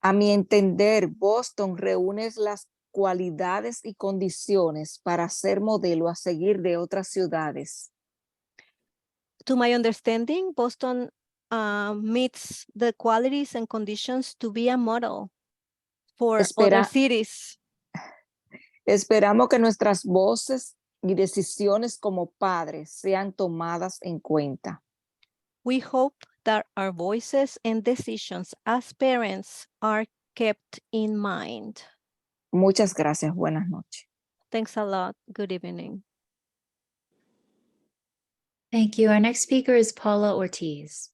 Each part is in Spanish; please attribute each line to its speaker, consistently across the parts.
Speaker 1: A mi entender, Boston reúne las cualidades y condiciones para ser modelo a seguir de otras ciudades.
Speaker 2: to my understanding, Boston uh, meets the qualities and conditions to be a model for other
Speaker 1: Espera.
Speaker 2: cities.
Speaker 1: Esperamos que nuestras voces y decisiones como padres sean tomadas en cuenta.
Speaker 2: We hope that our voices and decisions as parents are kept in mind.
Speaker 1: Muchas gracias. Buenas noches.
Speaker 2: Thanks a lot. Good evening.
Speaker 3: Thank you. Our next speaker is Paula Ortiz.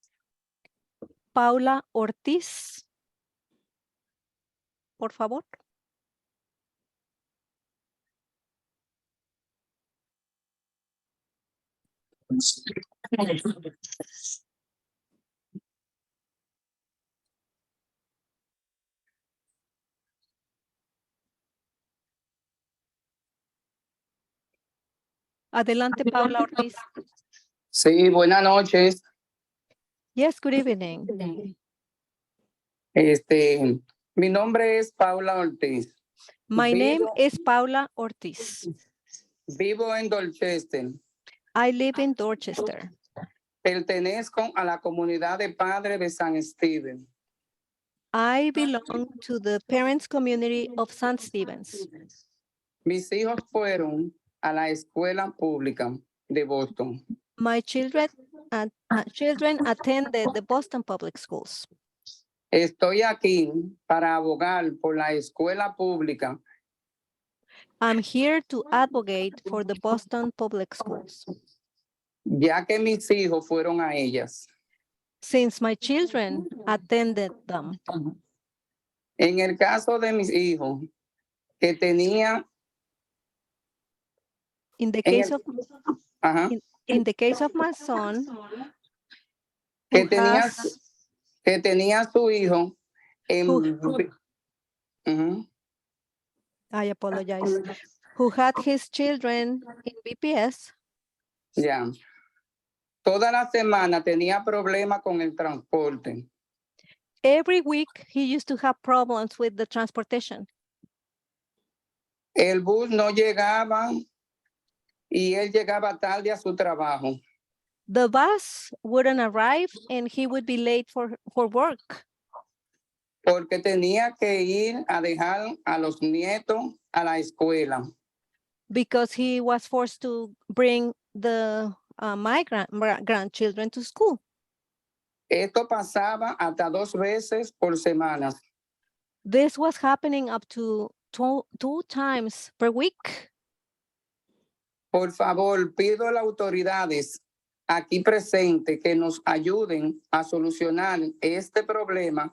Speaker 2: Paula Ortiz. Por favor. Adelante, Paula Ortiz.
Speaker 4: Sí, buenas noches.
Speaker 2: Yes, good evening.
Speaker 4: Este, mi nombre es Paula Ortiz.
Speaker 2: My name
Speaker 4: Vivo-
Speaker 2: is Paula Ortiz.
Speaker 4: Vivo en Dorchester.
Speaker 2: I live in Dorchester.
Speaker 4: Pertenezco a la comunidad de padres de San Steven.
Speaker 2: I belong to the parents' community of St. Stevens.
Speaker 4: Mis hijos fueron a la escuela pública de Boston.
Speaker 2: My children, at- uh, children attended the Boston Public Schools.
Speaker 4: Estoy aquí para abogar por la escuela pública
Speaker 2: I'm here to advocate for the Boston Public Schools.
Speaker 4: ya que mis hijos fueron a ellas.
Speaker 2: Since my children attended them,
Speaker 4: En el caso de mis hijos, que tenía,
Speaker 2: in the
Speaker 4: En
Speaker 2: case
Speaker 4: el-
Speaker 2: of,
Speaker 4: ajá,
Speaker 2: in the case of my son,
Speaker 4: que
Speaker 2: who
Speaker 4: tenía,
Speaker 2: has-
Speaker 4: su- que tenía su hijo en,
Speaker 2: Who-
Speaker 4: Ujú.
Speaker 2: I apologize, who had his children in BPS,
Speaker 4: Ya. Toda la semana tenía problemas con el transporte.
Speaker 2: every week he used to have problems with the transportation.
Speaker 4: El bus no llegaba y él llegaba tarde a su trabajo.
Speaker 2: the bus wouldn't arrive and he would be late for for work
Speaker 4: porque tenía que ir a dejar a los nietos a la escuela.
Speaker 2: because he was forced to bring the uh, my grand, grandchildren to school.
Speaker 4: Esto pasaba hasta dos veces por semana.
Speaker 2: This was happening up to two, two times per week.
Speaker 4: Por favor, pido a las autoridades aquí presentes que nos ayuden a solucionar este problema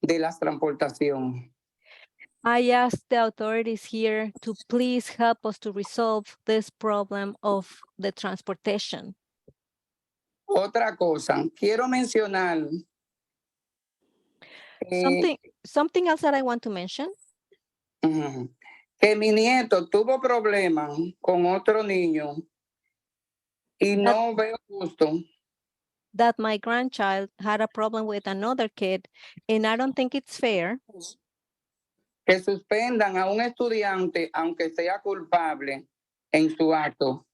Speaker 4: de la transportación.
Speaker 2: I asked the authorities here to please help us to resolve this problem of the transportation.
Speaker 4: Otra cosa, quiero mencionar eh,
Speaker 2: Something something else that I want to mention
Speaker 4: ujú, que mi nieto tuvo problemas con otro niño y no veo justo
Speaker 2: that my grandchild had a problem with another kid and I don't think it's fair
Speaker 4: que suspendan a un estudiante aunque sea culpable en su acto.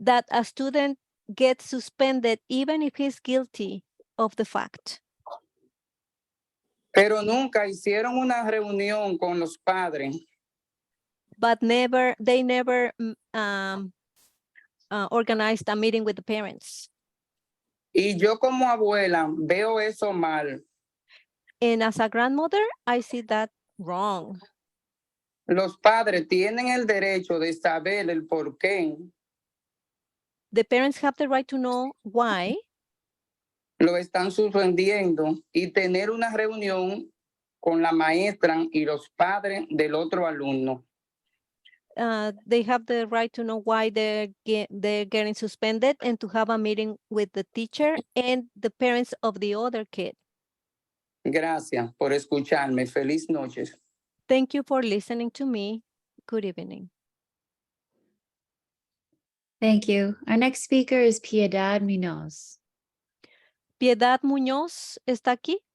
Speaker 2: that a student gets suspended even if he's guilty of the fact.
Speaker 4: Pero nunca hicieron una reunión con los padres
Speaker 2: But never, they never mm, um, uh, organized a meeting with the parents.
Speaker 4: y yo como abuela veo eso mal.
Speaker 2: And as a grandmother, I see that wrong.
Speaker 4: Los padres tienen el derecho de saber el porqué
Speaker 2: The parents have the right to know why
Speaker 4: lo están suspendiendo y tener una reunión con la maestra y los padres del otro alumno.
Speaker 2: uh, they have the right to know why they're ge- they're getting suspended and to have a meeting with the teacher and the parents of the other kid.
Speaker 4: Gracias por escucharme. Feliz noches.
Speaker 2: Thank you for listening to me. Good evening.
Speaker 3: Thank you. Our next speaker is Piedad Munoz.
Speaker 2: Piedad Muñoz está aquí.